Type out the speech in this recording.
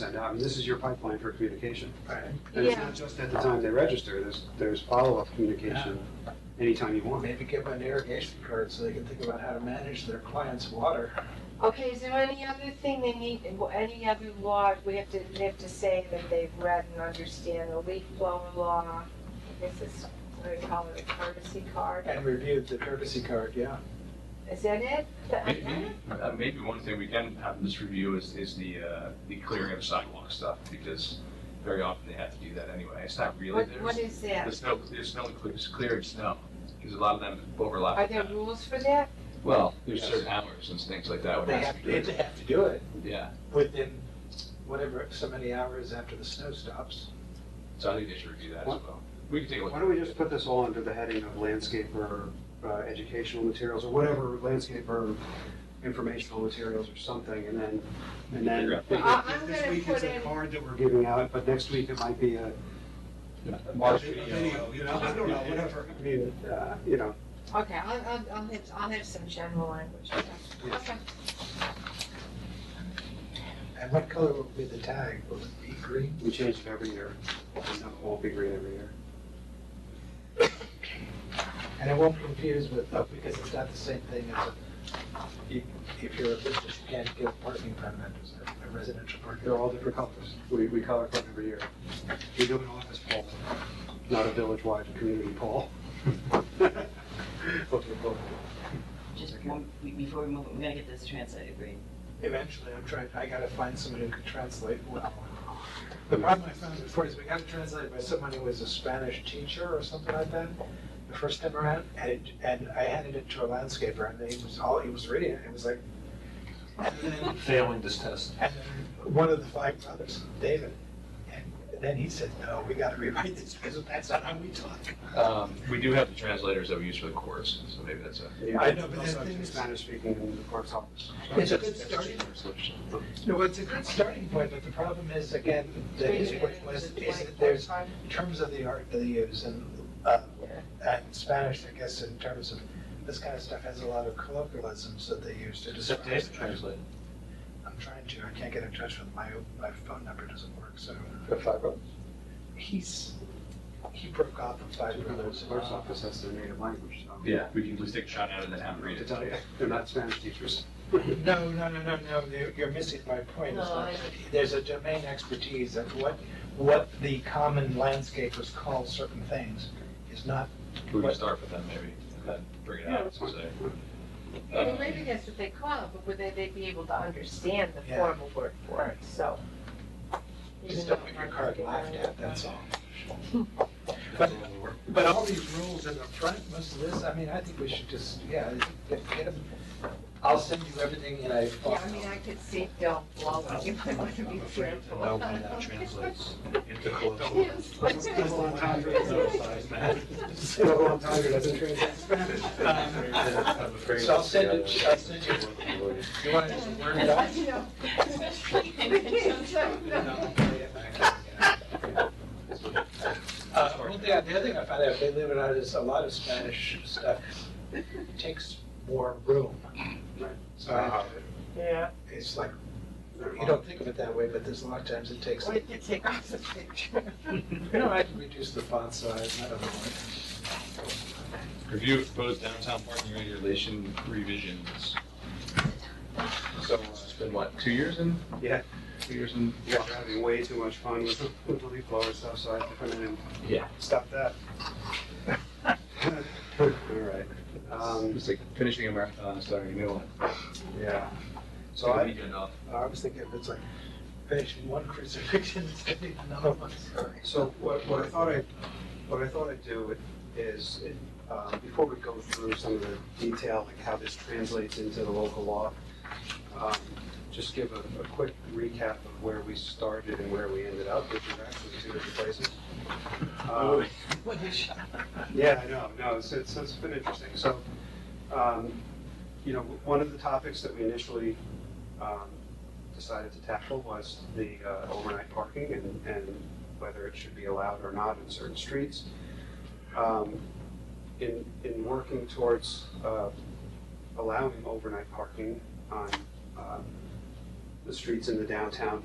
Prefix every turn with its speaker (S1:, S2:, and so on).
S1: send out. I mean, this is your pipeline for communication.
S2: Right.
S1: And it's
S3: Yeah.
S1: not just at the time they register, there's, there's follow-up communication anytime you want.
S2: Maybe give them an irrigation card so they can think about how to manage their clients' water.
S3: Okay, is there any other thing they need, any other law, we have to, they have to say that they've read and understand the leaf blower law? This is, what do you call it, a courtesy card?
S2: And reviewed the courtesy card, yeah.
S3: Is that it?
S4: Maybe, uh, maybe one thing we can have in this review is, is the, uh, the clearing of sidewalk stuff, because very often they have to do that anyway. It's not really
S3: What,
S4: theirs.
S3: what is that?
S4: There's no, there's no, clear- it's cleared snow, because a lot of them overlap.
S3: Are
S4: with
S3: there
S4: that.
S3: rules for that?
S4: Well, there's certain hours and things like that. when
S2: They
S4: it's
S2: have, to-
S4: cleared.
S2: they have to do it
S4: Yeah,
S2: within whatever, so many hours after the snow stops.
S4: so I think they should review that as well. We can take a
S1: Why
S4: look.
S1: don't we just put this all under the heading of landscaper, uh, educational materials, or whatever, landscaper informational materials or something, and then, and
S4: Figure
S1: then.
S4: out.
S3: I- I'm
S1: This
S3: gonna
S1: week it's
S3: put
S1: a
S3: in-
S1: card that we're giving out, but next week it might be a,
S4: Mark,
S2: Video,
S4: video.
S2: you know, I don't know, whatever.
S1: I mean, uh, you know,
S3: Okay, I'll, I'll, I'll have, I'll have some general language. Okay.
S1: Yeah.
S3: Okay.
S2: And what color will be the tag? Will it be green?
S1: we change it every year, and it won't be green every year.
S2: And I won't be confused with, oh, because it's not the same thing as a, if, if you're a business, you can't get a parking permit as a- a residential
S1: They're
S2: parking.
S1: all different colors. We, we color code every year. We do an office poll, not a village-wide community poll. Okay, cool.
S5: Just one, we- before we move, we're gonna get this translated, right?
S2: Eventually, I'm trying, I gotta find someone who can translate well. The problem I found before is we got it translated by someone who was a Spanish teacher or something like that, the first time around, and, it- and I handed it to a landscaper, and he was all, he was reading it, it was like, and then,
S6: failing this test.
S2: and then one of the five brothers, David, and then he said, no, we gotta rewrite this, because that's not how we talk.
S4: Um, we do have the translators that we use for the course, so maybe that's a.
S1: Yeah,
S2: I know, but
S1: also
S2: that thing is-
S1: Spanish-speaking in the clerk's office.
S2: It's a good starting No, it's a good starting point, but the problem is, again, the history was, is that there's terms of the art they use, and, uh, and Spanish, I guess, in terms of, this kind of stuff has a lot of colloquialisms that they use to describe. things.
S6: translated.
S2: I'm trying to, I can't get in touch with my, my phone number doesn't work, so
S6: The five
S2: oh-
S6: of
S2: he's, he broke off with five
S1: The
S2: brothers.
S1: clerk's office, that's their native language, so.
S4: Yeah, we can just take a shot at it and then have them
S1: I'm
S4: read
S1: to
S4: it.
S1: tell you, they're not Spanish teachers.
S2: No, no, no, no, no, you're- you're missing my point. It's
S5: No,
S2: not-
S5: I-
S2: There's a domain expertise of what, what the common landscapers call certain things is not,
S4: We can start with them maybe, and then bring it
S1: Yeah,
S4: out,
S1: that's
S4: so
S1: fine.
S4: say.
S3: Well, maybe that's what they call it, but would they, they'd be able to understand the
S2: Yeah.
S3: formal word for it, so.
S2: just
S3: Even
S2: don't
S3: though
S2: get
S3: it
S2: your
S3: might
S2: card
S3: be
S2: laughed
S3: wrong.
S2: at, that's all. But, but all these rules in the front, most of this, I mean, I think we should just, yeah, I think that get 'em- I'll send you everything in a
S3: Yeah,
S2: file.
S3: I mean, I could see Bill blowing, you might want to be careful.
S6: No, when that translates into colloquial.
S3: Yes.
S1: So, on time, it doesn't translate Spanish.
S6: I'm
S2: Um,
S6: afraid.
S2: So I'll send it, I'll send you, you want to just word it out?
S3: You know. We can't say no.
S2: Uh, one thing, the other thing I found out, believe it or not, is a lot of Spanish stuff takes more room. So
S1: Uh-huh. uh,
S2: I-
S3: Yeah.
S2: it's like, you don't think of it that way, but there's a lot of times it takes,
S3: Or you could take off the picture.
S2: you know, I can reduce the font size, I don't know.
S4: Review of proposed downtown parking regulation revisions. So, uh, it's been what, two years in?
S1: Yeah.
S4: Two years in?
S1: You guys are having way too much fun with the- with the leaf blower stuff, so I have to come in and
S4: Yeah.
S1: stop that. All right. Um,
S4: It's like finishing a marathon and starting a new one.
S1: Yeah. So I,
S4: Weekend off.
S2: I was thinking if it's like finishing one crucifixion, it's gonna be another one.
S1: so what, what I thought I, what I thought I'd do is, uh, before we go through some of the detail, like how this translates into the local law, um, just give a, a quick recap of where we started and where we ended up, which is actually two different places. Um,
S2: What a shock.
S1: Yeah, I know, no, it's, it's, it's been interesting. So, um, you know, one of the topics that we initially, um, decided to tackle was the, uh, overnight parking and, and whether it should be allowed or not in certain streets. Um, in, in working towards, uh, allowing overnight parking on, um, the uh, streets in the downtown,